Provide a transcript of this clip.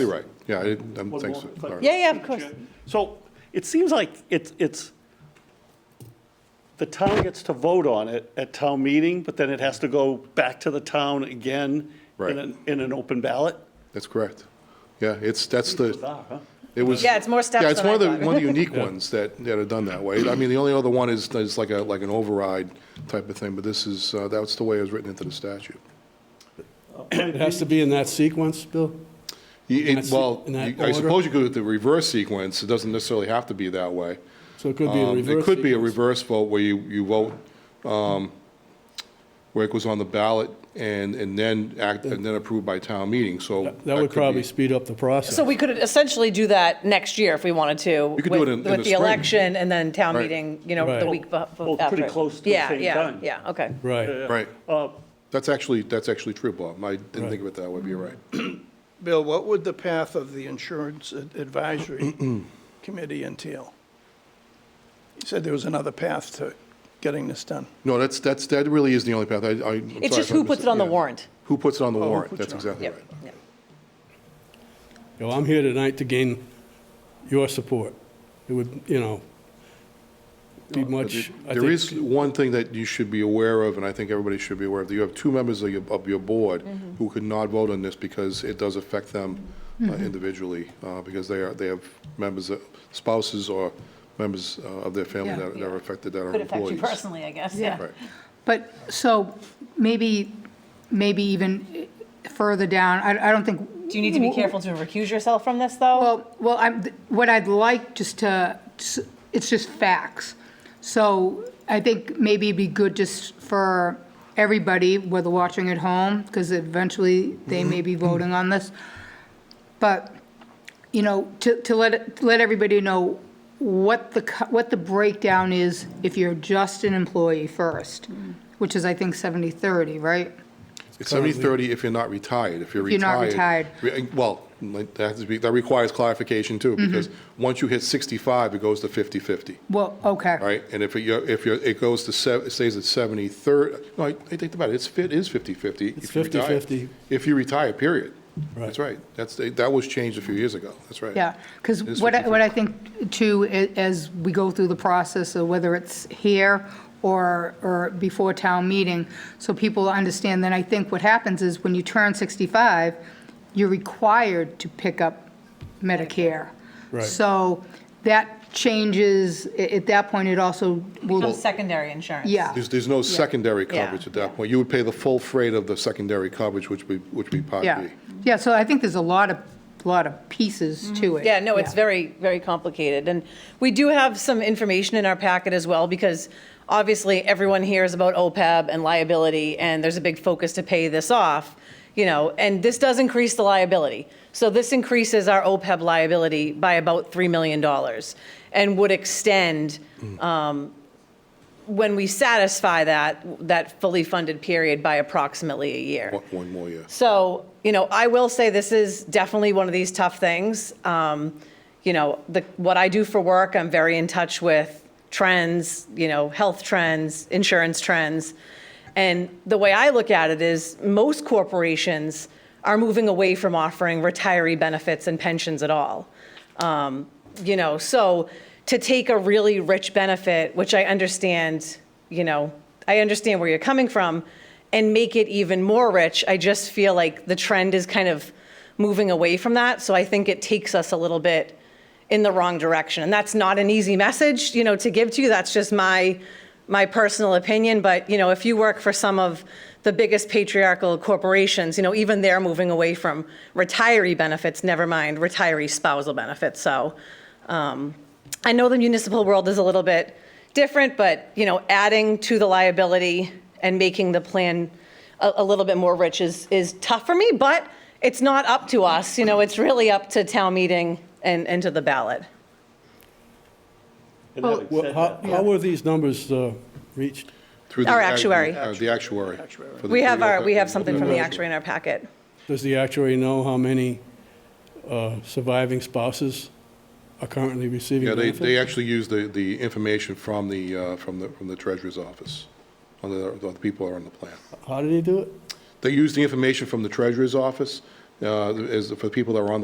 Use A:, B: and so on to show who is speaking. A: Exactly right. Yeah, I didn't, I'm- thanks.
B: more, if I
A: Laura.
C: Yeah, yeah, of course.
B: So it seems like it's, it's, the town gets to vote on it at town meeting, but then it has to go back to the town again
A: Right.
B: in an, in an open ballot.
A: That's correct. Yeah, it's, that's the,
B: Bizarre, huh?
A: it was.
C: Yeah, it's more steps
A: Yeah, it's
C: than
A: one of
C: I
A: the,
C: thought.
A: one of the unique ones that, that are done that way. I mean, the only other one is, is like a, like an override type of thing, but this is, uh, that's the way it was written into the statute.
D: It has to be in that sequence, Bill?
A: You-
D: In
A: it-
D: that se-
A: Well,
D: in that
A: you- I
D: order?
A: suppose you could do the reverse sequence. It doesn't necessarily have to be that way.
D: So it could be a
A: Um,
D: reverse.
A: It could be a
D: sequence.
A: reverse vote where you, you vote, um, where it goes on the ballot and, and then act, and then approved by town meeting, so.
D: That
A: could
D: would
A: be-
D: probably speed up the process.
C: So we could essentially do that next year if we wanted to.
A: could do it
C: with-
A: in- in the
C: With the
A: spring.
C: election and then town
A: Right.
C: meeting, you know, the
D: Right.
C: week before.
B: Well, pretty close to the same time.
C: Yeah, yeah, okay.
D: Right.
A: Right.
B: Uh,
A: That's actually, that's actually true, Bob. I didn't think of it that way, but you're right.
E: Bill, what would the path of the Insurance Ad- Advisory Committee entail? You said there was another path to getting this done.
A: No, that's, that's, that really is the only path. I, I. I'm sorry
C: It's just
A: if I
C: who puts
A: missed
C: it on the
A: Yeah.
C: warrant. Oh,
A: Who puts it on the
E: who
A: warrant?
E: puts
A: That's
E: it on.
A: exactly
C: Yep,
A: right.
C: yep.
D: You know, I'm here tonight to gain your support. It would, you know, be much, I
A: There is
D: think,
A: one thing that you should be aware of, and I think everybody should be aware of, that you have two members of your, of your board
C: Mm-hmm.
A: who could not vote on this because it does affect them uh,
D: Mm-hmm.
A: individually, uh, because they are, they have members, of- spouses or members uh, of their family that that are affected, that are
C: Could affect you
A: employees.
C: personally, I guess, yeah.
A: Right.
F: But, so, maybe, maybe even further down, I, I don't think.
C: Do you need to be careful to recuse yourself from this, though?
F: Well, well, I'm, what I'd like just to, it's just facts. So I think maybe it'd be good just for everybody, whether watching at home, because eventually they may be voting on this. But, you know, to, to let, to let everybody know what the, co- what the breakdown is if you're just an employee first, which is, I think, 70/30, right?
A: It's 70/30 if you're not retired. If you're
F: If you're not
A: retired. re- uh, Well, like, that has to be- that requires clarification too, because once you hit 65, it goes to 50/50.
F: Well, okay.
A: All right, and if you, if you, it goes to, sev- it stays at 73rd, no, I I think about it, it's, it is 50/50.
D: It's
A: if you retire.
D: 50-50.
A: If you retire, period.
D: Right.
A: That's right. That's, that was changed a few years ago, that's right.
F: Yeah, because
A: It is
F: what I,
A: 50-50.
F: what I think too, i- as we go through the process, of whether it's here or, or before town meeting, so people understand, then I think what happens is when you turn 65, you're required to pick up Medicare.
D: Right.
F: So that changes, a- at that point, it also
C: Some
F: will,
C: secondary insurance.
F: yeah,
A: There's, there's no secondary
C: Yeah.
A: coverage at that point. You would pay the full freight of the secondary coverage, which would, which would be Part
F: yeah.
A: B.
F: Yeah, so I think there's a lot of, lot of pieces to it.
C: Mm-hmm. Yeah, no, it's very, very complicated. And we do have some information in our packet as well, because obviously everyone hears about OPEB and liability, and there's a big focus to pay this off, you know, and this does increase the liability. So this increases our OPEB liability by about $3 million and would extend um, when we satisfy that, that fully funded period by approximately a year.
A: One- One more year.
C: So, you know, I will say this is definitely one of these tough things. Um, you know, the, what I do for work, I'm very in touch with trends, you know, health trends, insurance trends. And the way I look at it is most corporations are moving away from offering retiree benefits and pensions at all. Um, you know, so to take a really rich benefit, which I understand, you know, I understand where you're coming from, and make it even more rich, I just feel like the trend is kind of moving away from that. So I think it takes us a little bit in the wrong direction. And that's not an easy message, you know, to give to you. That's just my my personal opinion, but you know, if you work for some of the biggest patriarchal corporations, you know, even they're moving away from retiree benefits, never mind retiree spousal benefits. So um, I know the municipal world is a little bit different, but you know, adding to the liability and making the plan a, a little bit more rich is is tough for me, but it's not up to us. You know, it's really up to town meeting and, and to the ballot.
B: and having
D: Well,
B: said
D: how,
B: that-
D: how were these numbers uh, reached?
A: Through the
C: Our
A: ag-
C: actuary.
A: uh, The actuary. For the-
C: We
A: for
C: have
A: the
C: our, we
A: OPEB-
C: have something from the
A: OPEB.
C: actuary in our packet.
D: Does the actuary know how many uh, surviving spouses are currently receiving
A: Yeah, they,
D: benefits?
A: they actually use the, the information from the, uh, from the, from the treasurer's office, on the, on the people who are on the plan.
D: How did he do it?
A: They use the information from the treasurer's office, uh, as, for the people that are on the